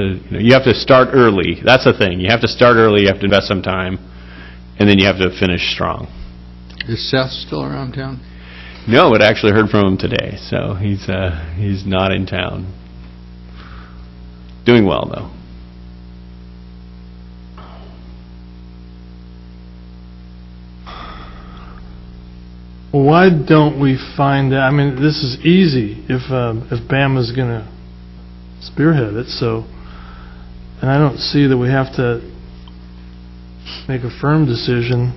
you know, you have to start early. That's the thing. You have to start early, you have to invest some time, and then you have to finish strong. Is Seth still around town? No, but I actually heard from him today, so he's, uh, he's not in town. Doing well, though. Why don't we find out, I mean, this is easy if, um, if Bama's going to spearhead it, so, and I don't see that we have to make a firm decision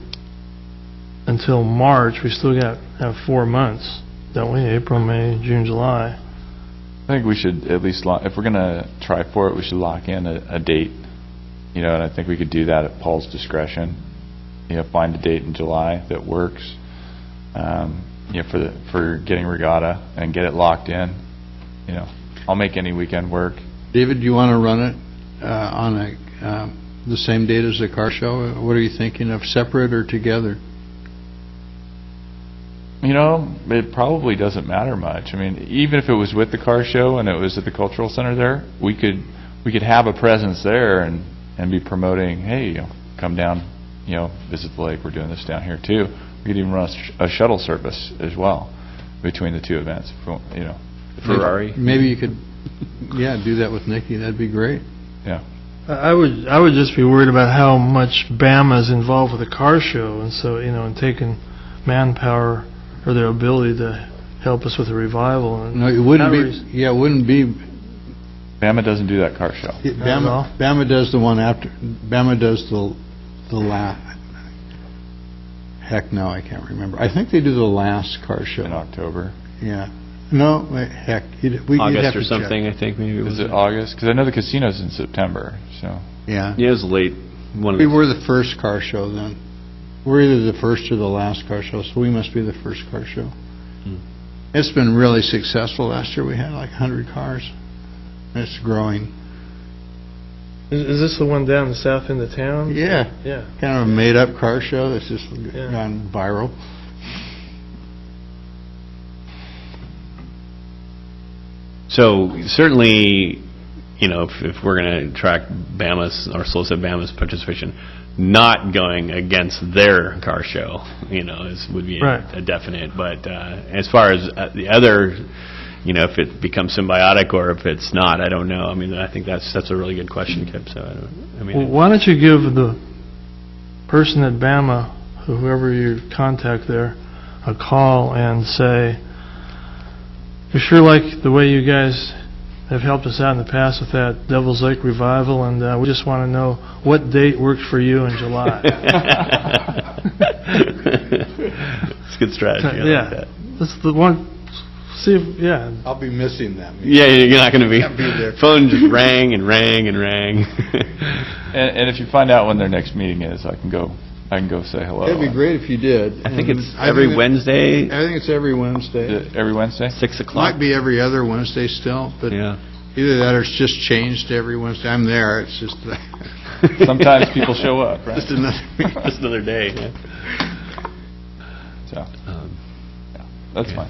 until March. We still got, have four months, don't we? April, May, June, July. I think we should at least, lo- if we're going to try for it, we should lock in a, a date, you know, and I think we could do that at Paul's discretion. You know, find a date in July that works, um, you know, for, the for getting regatta and get it locked in, you know. I'll make any weekend work. David, do you want to run it uh, on a, uh, the same date as the car show? What are you thinking of, separate or together? You know, it probably doesn't matter much. I mean, even if it was with the car show and it was at the cultural center there, we could, we could have a presence there and, and be promoting, hey, you know, come down, you know, visit the lake, we're doing this down here too. We could even run a sh- a shuttle service as well between the two events, if we want- you know. Ferrari. Maybe you could, yeah, do that with Nikki, that'd be great. I I would, I would just be worried about how much Bama's involved with the car show, and so, you know, and taking manpower or their ability to help us with the revival and No, it wouldn't Not be, yeah, it wouldn't be, Bama doesn't do that car show. Not at all. Bama, Bama does the one after, Bama does the, the la, heck, no, I can't remember. I think they do the last car In show, October. yeah. No, wait, heck, you'd, we'd you'd August have to or check. something, I think, maybe it was. Is it August? Because I know the casino's in September, so. Yeah. Yeah, it was late. One of We the- were the first car show then. We're either the first or the last car show, so we must be the first car show. Hmm. It's been really successful. Last year, we had like 100 cars. It's growing. Is, is this the one down the south end of town? Yeah, Yeah. kind of a made-up car show that's just Yeah. gone viral. So certainly, you know, if, if we're going to track Bama's or solicit Bama's participation, not going against their car show, you know, is would be a, Right. a definite. But uh, as far as uh, the other, you know, if it becomes symbiotic or if it's not, I don't know. I mean, I think that's that's a really good question, Kip. So I, don't, I mean, Well, why don't you give the person at Bama, whoever you contact there, a call and say, we sure like the way you guys have helped us out in the past with that Devil's Lake revival, and uh, we just want to know what date worked for you in July. it's a good strategy. I like Yeah. that. That's the one, see, if yeah, I'll be missing that. Yeah, you're not going to be. Can't be there. Phone just rang and rang and rang. And, and if you find out when their next meeting is, I can go, I can go say hello. It'd be great if you did. I think And it's Mm-hmm. I every think it- Wednesday, I think it's every Wednesday. Uh, Every Wednesday? six o'clock. Might be every other Wednesday still, but Yeah. either that or it's just changed to every Wednesday. I'm there, it's just, Sometimes people show up, right? just another meeting. Just another day. yeah. So, Um, that's Yeah. fine.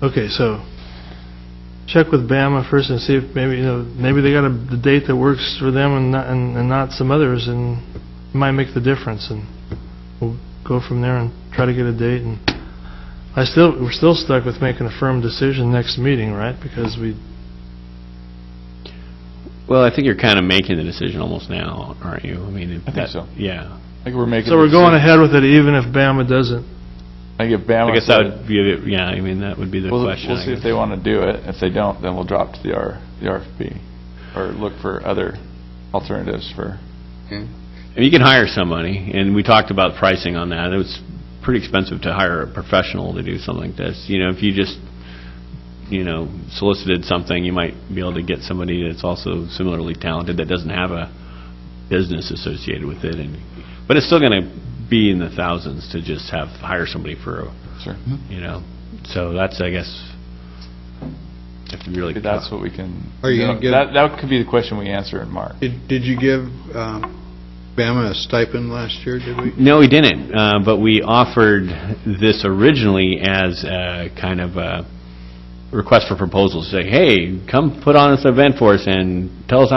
Okay, so check with Bama first and see if maybe, you know, maybe they got a the date that works for them and not, and and not some others and it might make the difference and we'll go from there and try to get a date and I still, we're still stuck with making a firm decision next meeting, right? Because we, Well, I think you're kind of making the decision almost now, aren't you? I mean, if think that- so. Yeah. I think we're making. so we're the going decision. ahead with it even if Bama doesn't. I think if Bama. I guess that said- would be, the- yeah, I mean, that would be the We'll, question. we'll I see if guess. they want to do it. If they don't, then we'll drop to the R, the RFP, or look for other alternatives for. And You can hire somebody, and we talked about pricing on that. It was pretty expensive to hire a professional to do something like this. You know, if you just, you know, solicited something, you might be able to get somebody that's also similarly talented that doesn't have a business associated with it. And But it's still going to be in the thousands to just have, hire somebody for, a Sure. Hmm. you know, so that's, I guess, if you really. Maybe that's what we can. Are you gonna no, give- That, that could be the question we answer in March. Did did you give um, Bama a stipend last year, did we? No, we didn't, uh, but we offered this originally as a kind of a request for proposals, say, hey, come put on this event for us and tell us how